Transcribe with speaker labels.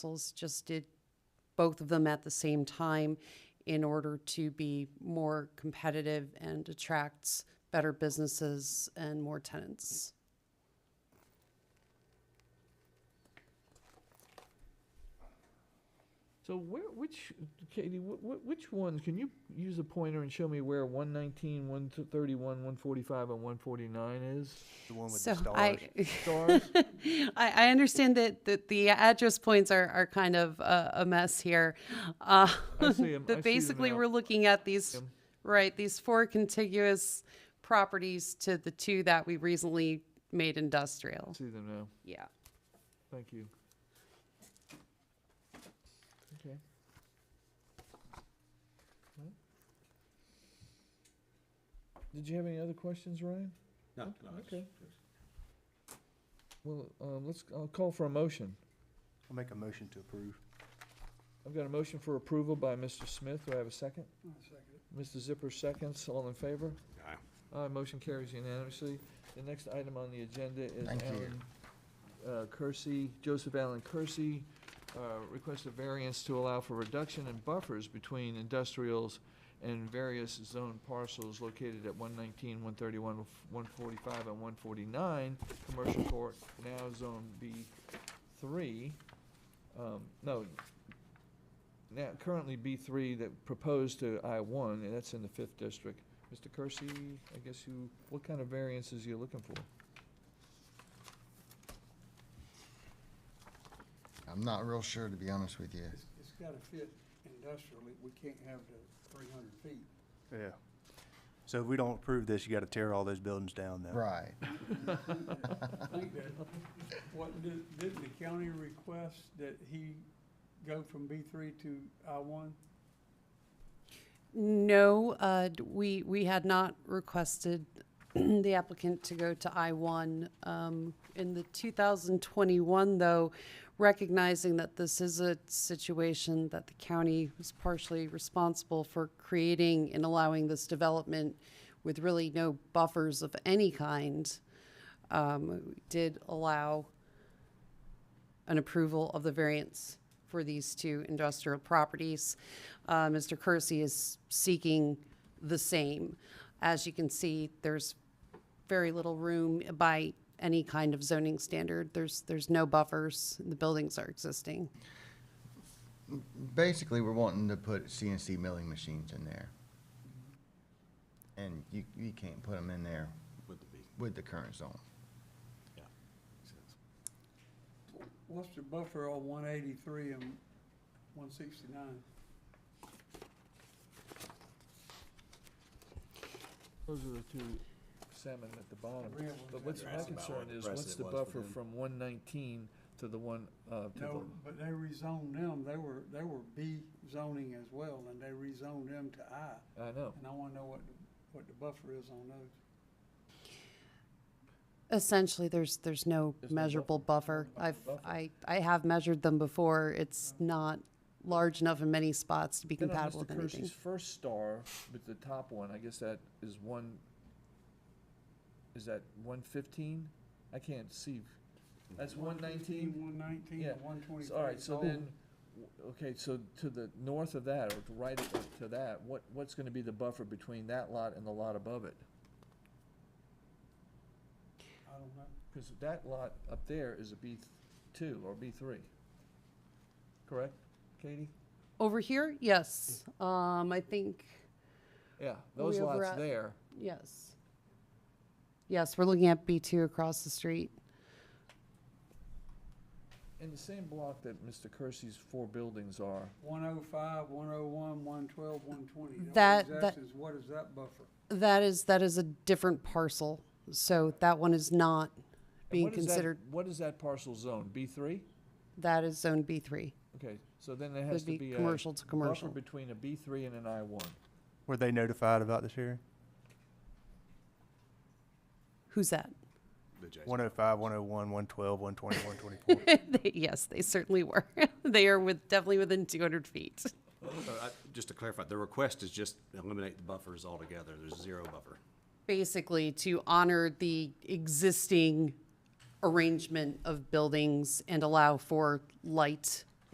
Speaker 1: councils just did both of them at the same time in order to be more competitive and attracts better businesses and more tenants.
Speaker 2: So where, which, Katie, wh- wh- which ones, can you use a pointer and show me where 119, 131, 145, and 149 is?
Speaker 3: The one with
Speaker 1: So
Speaker 3: the stars.
Speaker 1: I,
Speaker 2: Stars?
Speaker 1: I, I understand that, that the address points are, are kind of a, a mess here. Uh,
Speaker 2: I see 'em. I see
Speaker 1: But
Speaker 2: them
Speaker 1: basically,
Speaker 2: now.
Speaker 1: we're looking at these,
Speaker 2: Yep.
Speaker 1: right, these four contiguous properties to the two that we recently made industrial.
Speaker 2: See them now,
Speaker 1: Yeah.
Speaker 2: thank you. Okay. Well. Did you have any other questions, Ryan?
Speaker 4: No, no. it's-
Speaker 2: okay.
Speaker 4: it's-
Speaker 2: Well, um, let's, I'll call for a motion.
Speaker 3: I'll make a motion to approve.
Speaker 2: I've got a motion for approval by Mr. Smith, do I have a second? Mr. Zipper seconds, all in favor?
Speaker 4: Aye.
Speaker 2: Aye, motion carries unanimously. The next item on the agenda is
Speaker 5: Thank you.
Speaker 2: Alan uh, Kersey, Joseph Allen Kersey, uh, requests a variance to allow for reduction in buffers between industrials and various zone parcels located at 119, 131, 145, and 149, Commercial Court, now Zone B3. Um, No, now currently B3 that proposed to I1, and that's in the 5th District. Mr. Kersey, I guess you, what kind of variances you looking for?
Speaker 5: I'm not real sure, to be honest with you.
Speaker 6: It's, it's gotta fit industrially, we can't have the three hundred feet.
Speaker 3: Yeah. So if we don't approve this, you gotta tear all those buildings down then.
Speaker 5: Right.
Speaker 6: I think that, what, did, didn't the county request that he go from B three to I one?
Speaker 1: No, uh, d- we, we had not requested the applicant to go to I-1. Um, In the 2021, though, recognizing that this is a situation that the county was partially responsible for creating and allowing this development with really no buffers of any kind, um, did allow an approval of the variance for these two industrial properties. Uh, Mr. Kersey is seeking the same. As you can see, there's very little room by any kind of zoning standard. There's, there's no buffers. The buildings are existing.
Speaker 5: Basically, we're wanting to put CNC milling machines in there. And you, you can't put them in there
Speaker 4: With the B.
Speaker 5: with the current zone.
Speaker 6: What's the buffer on one eighty-three and one sixty-nine?
Speaker 2: Those are the two salmon at the bottom.
Speaker 6: The real ones
Speaker 2: But
Speaker 6: that
Speaker 2: what's
Speaker 6: are
Speaker 2: my
Speaker 4: out. That's about
Speaker 2: concern
Speaker 4: what the
Speaker 2: is,
Speaker 4: rest
Speaker 2: what's
Speaker 4: of
Speaker 2: the
Speaker 4: it was
Speaker 2: buffer
Speaker 4: within.
Speaker 2: from one nineteen to the one, uh, to
Speaker 6: No,
Speaker 2: the,
Speaker 6: but they rezoned them, they were, they were B zoning as well, and they rezoned them to I,
Speaker 2: I know.
Speaker 6: and I wanna know what, the- what the buffer is on those.
Speaker 1: Essentially, there's, there's no
Speaker 2: There's no
Speaker 1: measurable buffer. I've,
Speaker 2: Buffer.
Speaker 1: I, I have measured them before. It's not large enough in many spots to be
Speaker 2: Then on
Speaker 1: compatible with
Speaker 2: Mr. Kersey's
Speaker 1: anything.
Speaker 2: first star with the top one, I guess that is one, is that one fifteen? I can't see. That's one nineteen?
Speaker 6: One nineteen
Speaker 2: Yeah.
Speaker 6: and one
Speaker 2: So,
Speaker 6: twenty-three. Oh,
Speaker 2: All right, so then, w- okay, so to the north of that, or to right of- to that, what, what's gonna be the buffer between that lot and the lot above it?
Speaker 6: I don't know.
Speaker 2: Because that lot up there is a B two or B three. Correct, Katie?
Speaker 1: Over here, yes. Um, I think,
Speaker 2: Yeah,
Speaker 1: Are
Speaker 2: those
Speaker 1: we over
Speaker 2: lots
Speaker 1: at-
Speaker 2: there.
Speaker 1: Yes. Yes, we're looking at B2 across the street.
Speaker 2: In the same block that Mr. Kersey's four buildings are,
Speaker 6: 105, 101, 112, 120.
Speaker 1: That-
Speaker 6: All he's
Speaker 1: that-
Speaker 6: asking is what is that buffer?
Speaker 1: That is, that is a different parcel, so that one is not
Speaker 2: and
Speaker 1: being
Speaker 2: what is that-
Speaker 1: considered,
Speaker 2: What is that parcel zone, B three?
Speaker 1: that is zone B3.
Speaker 2: Okay, so then there has
Speaker 1: Would
Speaker 2: to
Speaker 1: be
Speaker 2: be a.
Speaker 1: commercial to commercial.
Speaker 2: Buffer between a B three and an I one.
Speaker 3: Were they notified about this hearing?
Speaker 1: Who's that?
Speaker 4: The J.
Speaker 3: One oh five, one oh one, one twelve, one twenty, one twenty-four.
Speaker 1: They- Yes, they certainly were. They are with, definitely within 200 feet.
Speaker 4: So I- uh, Just to clarify, the request is just eliminate the buffers altogether. There's zero buffer.
Speaker 1: Basically, to honor the existing arrangement of buildings and allow for light